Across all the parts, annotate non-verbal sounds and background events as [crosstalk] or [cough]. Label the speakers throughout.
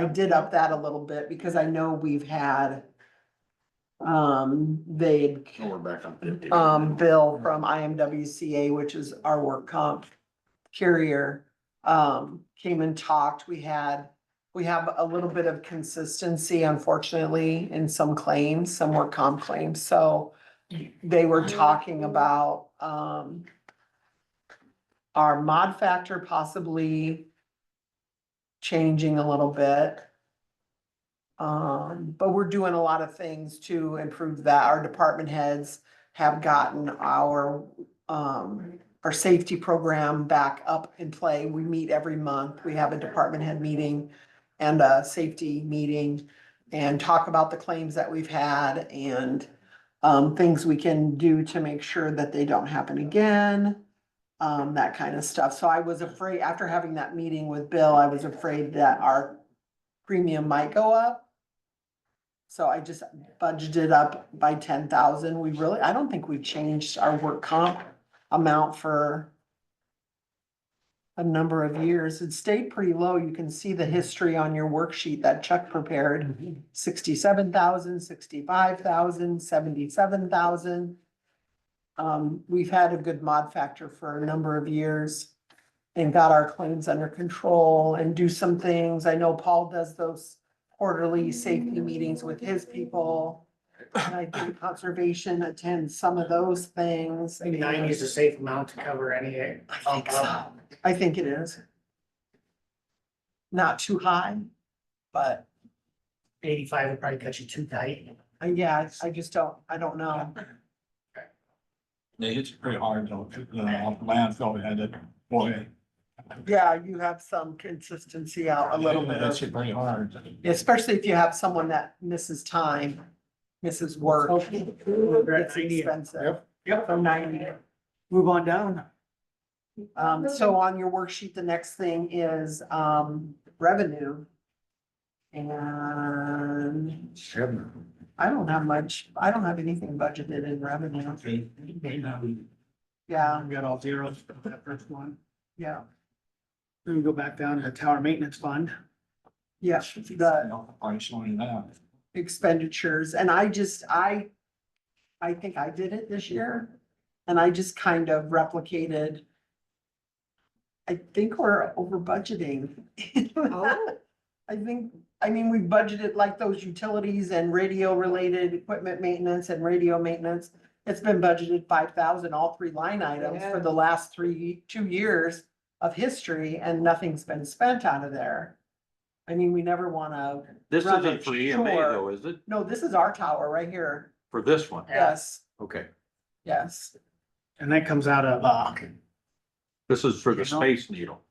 Speaker 1: I did up that a little bit because I know we've had, um, they'd,
Speaker 2: Oh, we're back on fifty.
Speaker 1: um, Bill from IMWCA, which is our work comp carrier, um, came and talked. We had, we have a little bit of consistency unfortunately in some claims, some work comp claims, so they were talking about, um, our mod factor possibly changing a little bit. Um, but we're doing a lot of things to improve that. Our department heads have gotten our, um, our safety program back up in play. We meet every month. We have a department head meeting and a safety meeting and talk about the claims that we've had and, um, things we can do to make sure that they don't happen again. Um, that kind of stuff. So I was afraid, after having that meeting with Bill, I was afraid that our premium might go up. So I just budgeted up by ten thousand. We really, I don't think we've changed our work comp amount for a number of years. It stayed pretty low. You can see the history on your worksheet that Chuck prepared. Sixty-seven thousand, sixty-five thousand, seventy-seven thousand. Um, we've had a good mod factor for a number of years and got our claims under control and do some things. I know Paul does those quarterly safety meetings with his people. And I think conservation attends some of those things.
Speaker 3: I think nine is a safe amount to cover any. uh,
Speaker 1: I think so. I think it is. Not too high, but
Speaker 3: Eighty-five would probably cut you too tight.
Speaker 1: uh, yeah, I I just don't, I don't know.
Speaker 4: They hit you pretty hard though, the landfill, we had it, boy.
Speaker 1: Yeah, you have some consistency out a little bit
Speaker 4: That's
Speaker 1: of,
Speaker 4: hit pretty hard.
Speaker 1: especially if you have someone that misses time, misses work. It's expensive.
Speaker 2: Yep.
Speaker 1: Yep, so ninety.
Speaker 3: Move on down.
Speaker 1: Um, so on your worksheet, the next thing is, um, revenue. And
Speaker 2: Seven.
Speaker 1: I don't have much, I don't have anything budgeted in revenue. Yeah,
Speaker 3: We got all zeros for that first one.
Speaker 1: yeah,
Speaker 3: Then we go back down to the tower maintenance fund.
Speaker 1: yeah, the
Speaker 4: Price on that.
Speaker 1: expenditures, and I just, I, I think I did it this year, and I just kind of replicated. I think we're over budgeting. [laughs] I think, I mean, we budgeted like those utilities and radio related equipment maintenance and radio maintenance. It's been budgeted five thousand, all three line items for the last three, two years of history and nothing's been spent out of there. I mean, we never wanna,
Speaker 5: This
Speaker 1: Rubbish,
Speaker 5: isn't for EMA
Speaker 1: sure.
Speaker 5: though, is it?
Speaker 1: no, this is our tower right here.
Speaker 5: For this one?
Speaker 3: Yeah.
Speaker 1: Yes,
Speaker 5: Okay.
Speaker 1: yes.
Speaker 3: And that comes out of, uh,
Speaker 5: This is for the
Speaker 3: You know?
Speaker 5: Space Needle.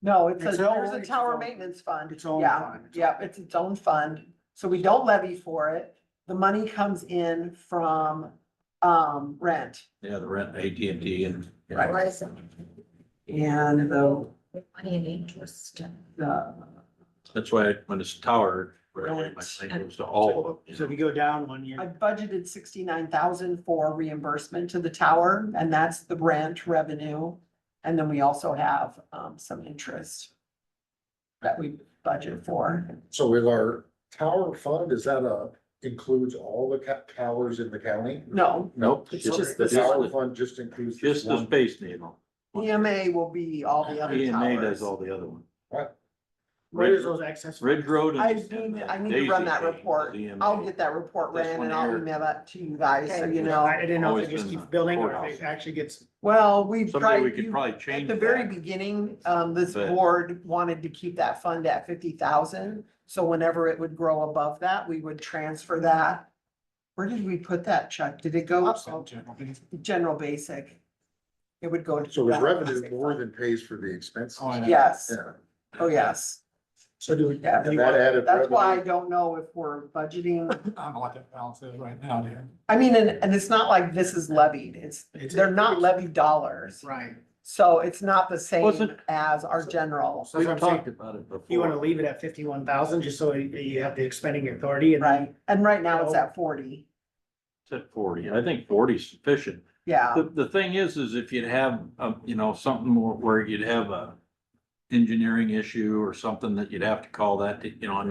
Speaker 1: No, it's a,
Speaker 3: It's all-
Speaker 1: there's a
Speaker 3: it's
Speaker 1: tower
Speaker 3: all-
Speaker 1: maintenance fund.
Speaker 3: its own
Speaker 1: Yeah,
Speaker 3: fund.
Speaker 1: Yeah, it's its own fund. So we don't levy for it. The money comes in from, um, rent.
Speaker 5: Yeah, the rent, AT&T and.
Speaker 1: Right. And the,
Speaker 6: Money and interest.
Speaker 1: the,
Speaker 5: That's why when it's tower, right, my thing goes to all of
Speaker 2: Oh.
Speaker 5: them. you
Speaker 3: So if
Speaker 5: know?
Speaker 3: you go down one
Speaker 1: I
Speaker 3: year,
Speaker 1: budgeted sixty-nine thousand for reimbursement to the tower and that's the rent revenue. And then we also have, um, some interest that we budget for.
Speaker 2: So with our tower fund, is that a, includes all the ca- towers in the county?
Speaker 1: No,
Speaker 2: Nope.
Speaker 1: It's just
Speaker 2: The
Speaker 5: the-
Speaker 2: tower fund just includes. this
Speaker 5: Just the
Speaker 2: one.
Speaker 5: Space Needle.
Speaker 1: EMA E will be all the other
Speaker 5: EMA E does
Speaker 1: towers.
Speaker 5: all the other ones.
Speaker 3: where is those excess?
Speaker 5: Ridge Road. and-
Speaker 1: I need, I need to run that report.
Speaker 5: E
Speaker 1: I'll get that report
Speaker 5: This
Speaker 1: ran
Speaker 5: one
Speaker 1: and I'll
Speaker 5: here.
Speaker 1: email that to you guys, so you
Speaker 3: I
Speaker 1: know.
Speaker 3: didn't know if
Speaker 5: Always
Speaker 3: it just
Speaker 5: been
Speaker 3: keeps
Speaker 5: the
Speaker 3: building or if
Speaker 5: courthouse.
Speaker 3: it actually gets,
Speaker 1: Well, we've
Speaker 5: Someday we
Speaker 1: tried,
Speaker 5: could
Speaker 1: you-
Speaker 5: probably
Speaker 1: at
Speaker 5: change
Speaker 1: the very
Speaker 5: that.
Speaker 1: beginning, um, this
Speaker 5: But-
Speaker 1: board wanted to keep that fund at fifty thousand. So whenever it would grow above that, we would transfer that. Where did we put that, Chuck? Did it go general basic? It would go. to
Speaker 2: So the
Speaker 1: general
Speaker 2: revenue
Speaker 1: basic
Speaker 2: more
Speaker 1: fund.
Speaker 2: than pays for the expenses.
Speaker 4: Oh, yeah.
Speaker 1: Yes,
Speaker 2: Yeah.
Speaker 1: oh, yes.
Speaker 3: so do we?
Speaker 1: Yeah.
Speaker 3: do we
Speaker 2: And that
Speaker 3: want-
Speaker 2: added.
Speaker 1: That's why I
Speaker 2: revenue-
Speaker 1: don't know if we're budgeting
Speaker 4: I don't know what that balance is right now, dude.
Speaker 1: I mean, and, and it's not like this is levied, it's,
Speaker 3: It's-
Speaker 1: they're not levied dollars,
Speaker 3: Right.
Speaker 1: so it's not the same
Speaker 5: Wasn't-
Speaker 1: as our general,
Speaker 3: So
Speaker 5: We've
Speaker 3: that's what I'm saying.
Speaker 5: talked about it before.
Speaker 3: You wanna leave it at fifty-one thousand, just so you- you have the expending authority and.
Speaker 1: right? And right now it's at forty,
Speaker 5: It's at forty. I think 40 is sufficient.
Speaker 1: yeah,
Speaker 5: The, the thing is, is if you'd have, um, you know, something more where you'd have a engineering issue or something that you'd have to call that, you know, I mean,